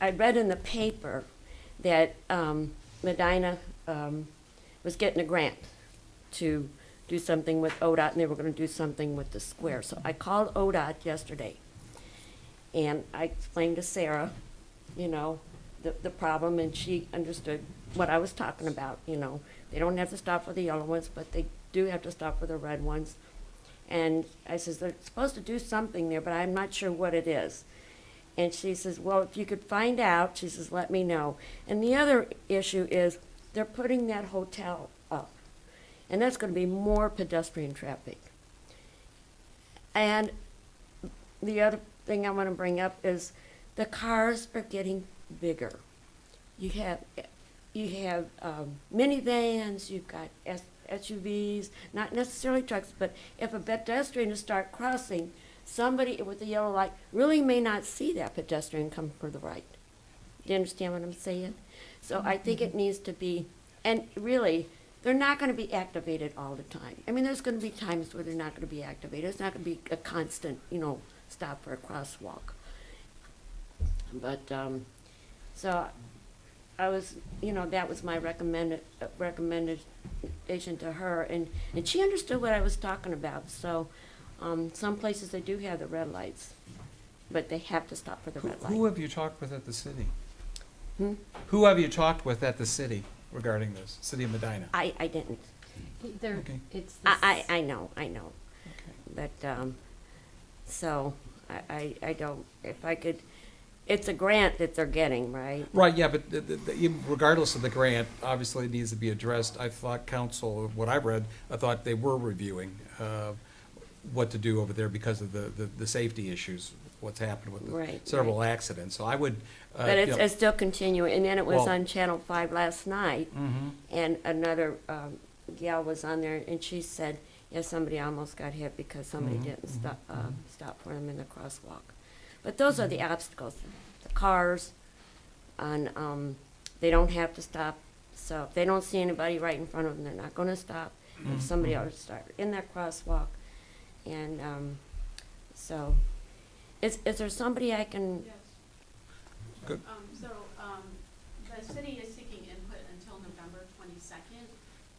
I read in the paper that um, Medina um, was getting a grant to do something with ODOT, and they were gonna do something with the square. So I called ODOT yesterday, and I explained to Sarah, you know, the, the problem, and she understood what I was talking about, you know. They don't have to stop for the yellow ones, but they do have to stop for the red ones. And I says, they're supposed to do something there, but I'm not sure what it is. And she says, well, if you could find out, she says, let me know. And the other issue is, they're putting that hotel up, and that's gonna be more pedestrian traffic. And the other thing I wanna bring up is, the cars are getting bigger. You have, you have um, minivans, you've got S- SUVs, not necessarily trucks, but if a pedestrian is start crossing, somebody with a yellow light really may not see that pedestrian come for the right. Do you understand what I'm saying? So I think Mm-hmm. it needs to be, and really, they're not gonna be activated all the time. I mean, there's gonna be times where they're not gonna be activated, it's not gonna be a constant, you know, stop for a crosswalk. But, um, so I was, you know, that was my recommended, uh, recommendation to her, and, and she understood what I was talking about, so, um, some places they do have the red lights, but they have to stop for the Who, red who light. have you talked with at the city? Hmm? Who have you talked with at the city regarding this, city of Medina? I, I didn't, There, Okay. it's. I, this- I, I know, I know, Okay. but, um, so, I, I, I don't, if I could, it's a grant that they're getting, right? Right, yeah, but the- the- the- even regardless of the grant, obviously it needs to be addressed. I thought council, what I read, I thought they were reviewing uh, what to do over there because of the, the, the safety issues, what's happened with the Right, several accidents. So I would, uh, But you it's, know, it's still continuing, and then it was Well- on Channel Five last night, mm-hmm. and another um, gal was on there, and she said, yeah, somebody almost got hit because somebody didn't stop, uh, stop for them in the crosswalk. But those are the obstacles, the cars, and, um, they don't have to stop, so if they don't see anybody right in front of them, they're not gonna stop. If somebody else start in that crosswalk, and, um, so, is, is there somebody I can, Yes. Good. Um, so, um, the city is seeking input until November twenty-second,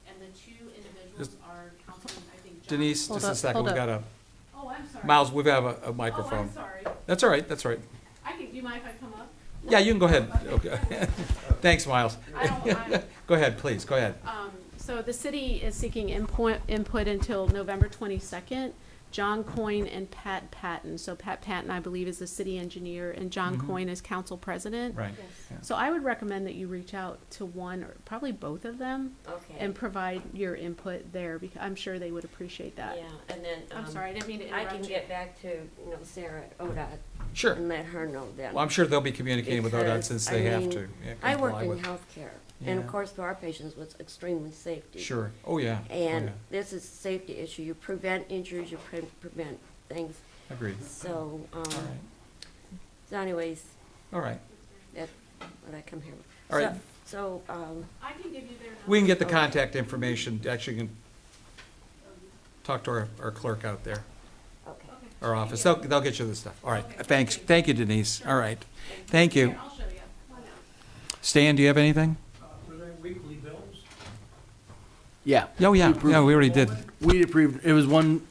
and the two individuals Just- are Councilman, I think, John. Denise, Hold just a up, second, hold we've up. got a, Oh, I'm sorry. Miles, we have a- a Oh, microphone. I'm sorry. That's all right, that's all right. I can, do you mind if I come up? Yeah, you can go ahead. Okay. Thanks, Miles. I don't, I'm, Go ahead, please, go ahead. Um, so the city is seeking input, input until November twenty-second. John Coyne and Pat Patton. So Pat Patton, I believe, is the city engineer, and John Mhm. Coyne is council president. Right. So I would recommend that you reach out to one or probably both of them okay? and provide your input there because I'm sure they would appreciate that. Yeah, and then, I'm um, sorry, I didn't mean to I interrupt can you. get back to, you know, Sarah at ODOT Sure. and let her know then. Well, I'm sure they'll be communicating with ODOT Because, since I they have mean, to. yeah, I work comply in with- healthcare, and of Yeah. course, for our patients, it's extremely safety. Sure, oh, yeah. oh, And yeah. this is a safety issue, you prevent injuries, you pre- prevent things, Agreed. so, um, All right, so anyways, all right. that's what I come here with. All right. So, so, um, I can give you their number. We can get the Okay. contact information, actually, you can talk to our, our clerk out there, okay. Okay. our office, they'll, Thank they'll get you the stuff. All right, Okay. thanks, thank you Denise, all right, thank you. you. Here, I'll show you. Come on out. Stan, do you have anything? Were there weekly bills? Yeah, Oh, yeah, yeah, we already did. we approved, it was one,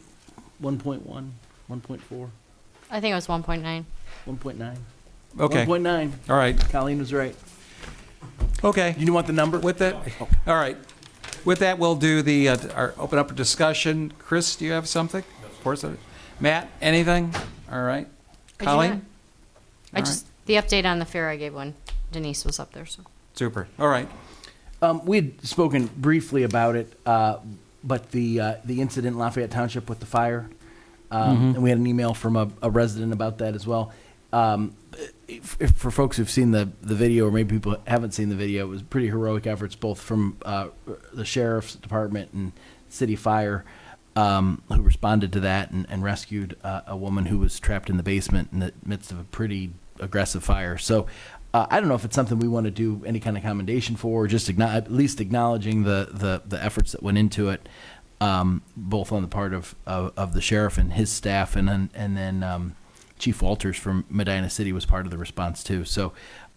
one point one, one point four, I think it was 1.9. one point nine. Okay, One point nine, all right, Colleen was right. okay. You want the number? With that, all right. With that, we'll do the, uh, our, open up a discussion. Chris, do you have something? Of course, I- Matt, anything? All right. do not. Colleen? I All right. just the update on the fair I gave when Denise was up there. So Super, all right. Um, we had spoken briefly about it, uh, but the, uh, the incident in Lafayette Township with the fire, um, and we had an email from a, a resident about that as well. Um, if, if for folks who've seen the, the video, or maybe people haven't seen the video, it was pretty heroic efforts both from uh, the sheriff's department and city fire, um, who responded to that and, and rescued uh, a woman who was trapped in the basement in the midst of a pretty aggressive fire. So uh, I don't know if it's something we want to do any kind of commendation for, or just acknow- at least acknowledging the, the, the efforts that went into it, um, both on the part of, of, of the sheriff and his staff, and then, and then um, Chief Walters from Medina City was part of the response too. So